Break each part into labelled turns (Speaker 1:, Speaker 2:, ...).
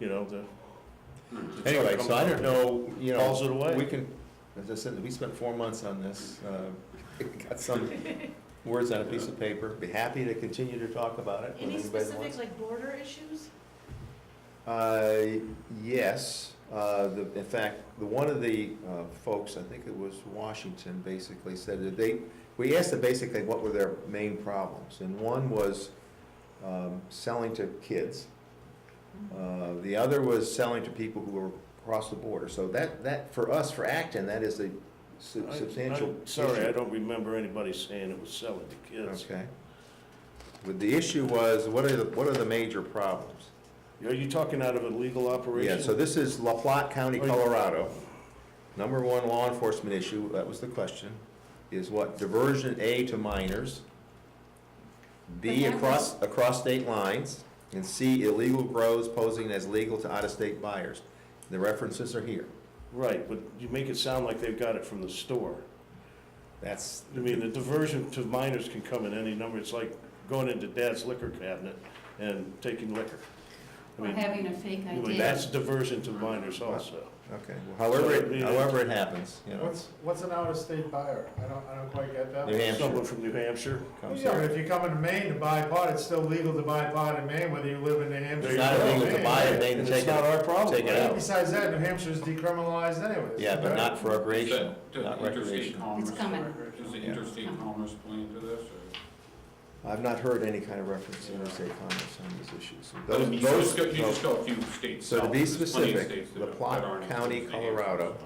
Speaker 1: you know, the. the truck
Speaker 2: Anyway,
Speaker 1: comes
Speaker 2: so I
Speaker 1: out
Speaker 2: don't
Speaker 1: and
Speaker 2: know, you know.
Speaker 1: Calls it away.
Speaker 2: We can, as I said, we spent four months on this, uh, got some words on a piece of paper. Be happy to continue to talk about it. when
Speaker 3: Any
Speaker 2: anybody
Speaker 3: specific,
Speaker 2: wants.
Speaker 3: like, border issues?
Speaker 2: Uh, yes, uh, the, in fact, the, one of the, uh, folks, I think it was Washington, basically said that they, we asked them basically what were their main problems, and one was, um, selling to kids. Uh, the other was selling to people who were across the border, so that, that, for us, for Acton, that is a sub-
Speaker 1: I-
Speaker 2: substantial
Speaker 1: I'm Sorry, I
Speaker 2: issue.
Speaker 1: don't remember anybody saying it was selling to kids.
Speaker 2: Okay. But the issue was, what are the, what are the major problems?
Speaker 1: Are you talking out of a legal operation?
Speaker 2: Yeah, so this is La Platte County,
Speaker 1: Oh, yeah.
Speaker 2: Colorado. Number one law enforcement issue, that was the question, is what diversion A to minors, B
Speaker 3: But that
Speaker 2: across, across state lines, and C illegal grows posing as legal to out-of-state buyers. The references are here.
Speaker 1: Right, but you make it sound like they've got it from the store.
Speaker 2: That's,
Speaker 1: I mean, the diversion to minors can come in any number. It's like going into dad's liquor cabinet and taking liquor. I
Speaker 4: Or
Speaker 1: mean,
Speaker 4: having a fake
Speaker 1: I mean,
Speaker 4: idea.
Speaker 1: that's diversion to minors also.
Speaker 2: okay, well, however, it- however it happens, you know.
Speaker 5: What's, what's an out-of-state buyer? I don't, I don't quite get that.
Speaker 2: New
Speaker 5: one.
Speaker 2: Hampshire.
Speaker 1: Someone from New Hampshire.
Speaker 2: comes
Speaker 5: Yeah, but
Speaker 2: here.
Speaker 5: if you come into Maine to buy pot, it's still legal to buy pot in Maine, whether you live in New Hampshire.
Speaker 2: It's
Speaker 5: or
Speaker 2: not
Speaker 5: you live in
Speaker 2: illegal to
Speaker 5: Maine.
Speaker 2: buy it, they
Speaker 1: And
Speaker 2: can
Speaker 1: it's
Speaker 2: take it
Speaker 1: not our
Speaker 2: out,
Speaker 1: problem,
Speaker 2: take it
Speaker 1: right?
Speaker 2: out.
Speaker 5: Besides that, New Hampshire's decriminalized anyways.
Speaker 2: Yeah, but not for recreational,
Speaker 6: Does
Speaker 2: not
Speaker 6: interstate
Speaker 2: recreational.
Speaker 6: commerce,
Speaker 4: It's coming.
Speaker 6: does the
Speaker 2: Yeah.
Speaker 6: interstate
Speaker 4: Coming.
Speaker 6: commerce play into this, or?
Speaker 2: I've not heard any kind of reference to interstate commerce on these issues.
Speaker 6: I mean,
Speaker 2: Those,
Speaker 6: You just
Speaker 2: those,
Speaker 6: go, you just
Speaker 2: those-
Speaker 6: go a few states
Speaker 2: So to
Speaker 6: south,
Speaker 2: be
Speaker 6: there's plenty of
Speaker 2: specific,
Speaker 6: states that
Speaker 2: La
Speaker 6: don't- that
Speaker 2: Platte
Speaker 6: aren't
Speaker 2: County,
Speaker 6: included in the Hampshire
Speaker 2: Colorado.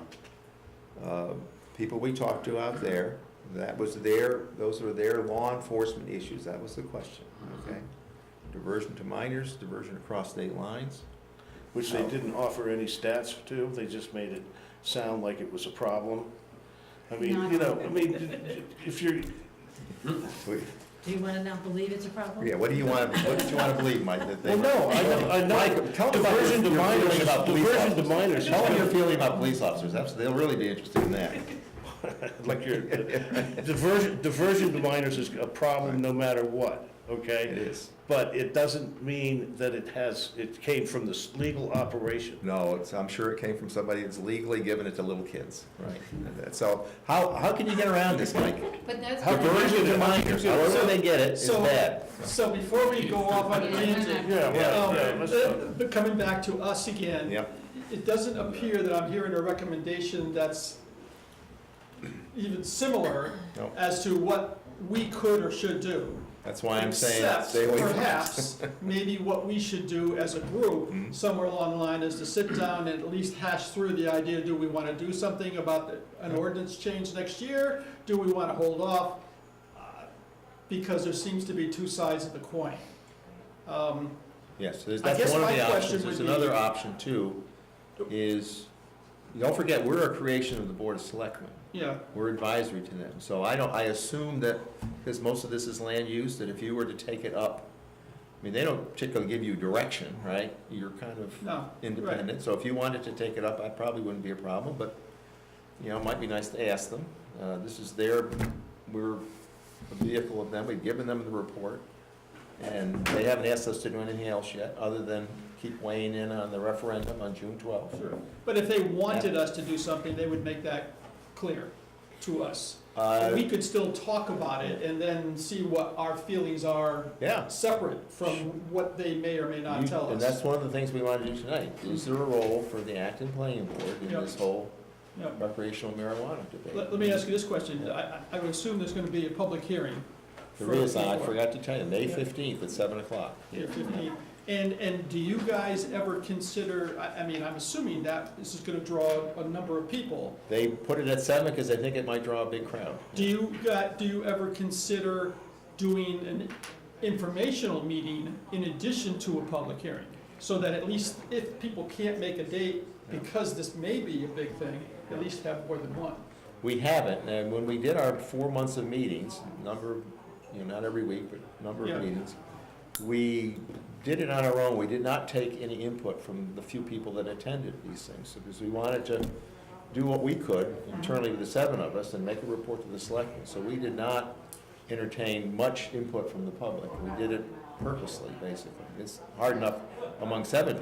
Speaker 6: system.
Speaker 2: uh, people we talked to out there, that was their, those were their law enforcement issues, that was the question, okay? Diversion to minors, diversion across state lines.
Speaker 1: which
Speaker 2: Oh.
Speaker 1: they didn't offer any stats to. They just made it sound like it was a problem. I mean, you know, I mean, if you're,
Speaker 2: We-
Speaker 3: Do you wanna not believe it's a problem?
Speaker 2: Yeah, what do you want, what do you want to believe, Mike? that they-
Speaker 1: well, no, I know, I know.
Speaker 2: Mike, tell them about your-
Speaker 1: Diversion to
Speaker 2: your
Speaker 1: minors,
Speaker 2: feeling about police
Speaker 1: diversion to
Speaker 2: officers.
Speaker 1: minors.
Speaker 2: Tell them your feeling about police officers, that's, they'll really be interested in that.
Speaker 1: Like your, diversion, diversion to minors is a problem no matter what,
Speaker 2: It
Speaker 1: okay?
Speaker 2: is.
Speaker 1: But it doesn't mean that it has, it came from this legal operation.
Speaker 2: No, it's, I'm sure it came from somebody that's legally giving it to little kids, right? So how, how can you get around this, Mike?
Speaker 4: But that's.
Speaker 1: How
Speaker 2: Diversion to minors, however they get it, is
Speaker 7: So,
Speaker 2: bad.
Speaker 7: so before we go off on a tangent,
Speaker 1: Yeah, well,
Speaker 7: um,
Speaker 1: yeah, let's talk.
Speaker 7: uh, but coming back to us again.
Speaker 2: Yep.
Speaker 7: It doesn't appear that I'm hearing a recommendation that's even similar
Speaker 2: Nope.
Speaker 7: as to what we could or should do.
Speaker 2: That's why I'm saying stay away
Speaker 7: Except
Speaker 2: from us.
Speaker 7: perhaps, maybe what we should do as a
Speaker 2: Mhm.
Speaker 7: group, somewhere along the line, is to sit down and at least hash through the idea, do we want to do something about the- an ordinance change next year? Do we want to hold off? Uh, Because there seems to be two sides of the coin. Um,
Speaker 2: Yes, there's,
Speaker 7: I
Speaker 2: that's
Speaker 7: guess
Speaker 2: one of
Speaker 7: my
Speaker 2: the
Speaker 7: question
Speaker 2: options. There's
Speaker 7: would be-
Speaker 2: another option too, is, don't forget, we're a creation of the Board of Selectmen.
Speaker 7: Yeah,
Speaker 2: We're advisory to them. So I don't, I assume that, because most of this is land use, that if you were to take it up, I mean, they don't particularly give you direction, right? You're kind of
Speaker 7: no, right.
Speaker 2: independent. So if you wanted to take it up, I probably wouldn't be a problem, but, you know, it might be nice to ask them. Uh, This is their, we're a vehicle of them, we've given them the report, and they haven't asked us to do anything else yet, other than keep weighing in on the referendum on June twelfth.
Speaker 7: Sure. But if they wanted us to do something, they would make that clear to us.
Speaker 2: Uh,
Speaker 7: We could still talk about it and then see what our feelings are
Speaker 2: Yeah.
Speaker 7: separate from what they may or may not
Speaker 2: You-
Speaker 7: tell
Speaker 2: And
Speaker 7: us.
Speaker 2: that's one of the things we want to do tonight. Is there a role for the Acton Planning Board in
Speaker 7: Yep.
Speaker 2: this whole
Speaker 7: Yeah.
Speaker 2: recreational marijuana debate?
Speaker 7: Let, let me ask you this question, I, I- I would assume there's gonna be a public hearing.
Speaker 2: There
Speaker 7: for-
Speaker 2: is, uh, I forgot to tell you, May
Speaker 7: Yeah.
Speaker 2: fifteenth at seven o'clock.
Speaker 7: Yeah, 15. And, and do you guys ever consider, I, I mean, I'm assuming that this is gonna draw a number of people.
Speaker 2: They put it at seven because they think it might draw a big crowd.
Speaker 7: Do you, got- do you ever consider doing an informational meeting in addition to a public hearing? So that at least if people can't make a date, because this may be a big thing, at least have more than one.
Speaker 2: We haven't, and when we did our four months of meetings, number, of you know, not every week, but number
Speaker 7: Yeah.
Speaker 2: of meetings, we did it on our own, we did not take any input from the few people that attended these things, because we wanted to do what we could internally with the seven of us and make a report to the selectmen, so we did not entertain much input from the public, we did it purposely, basically. It's hard enough among seven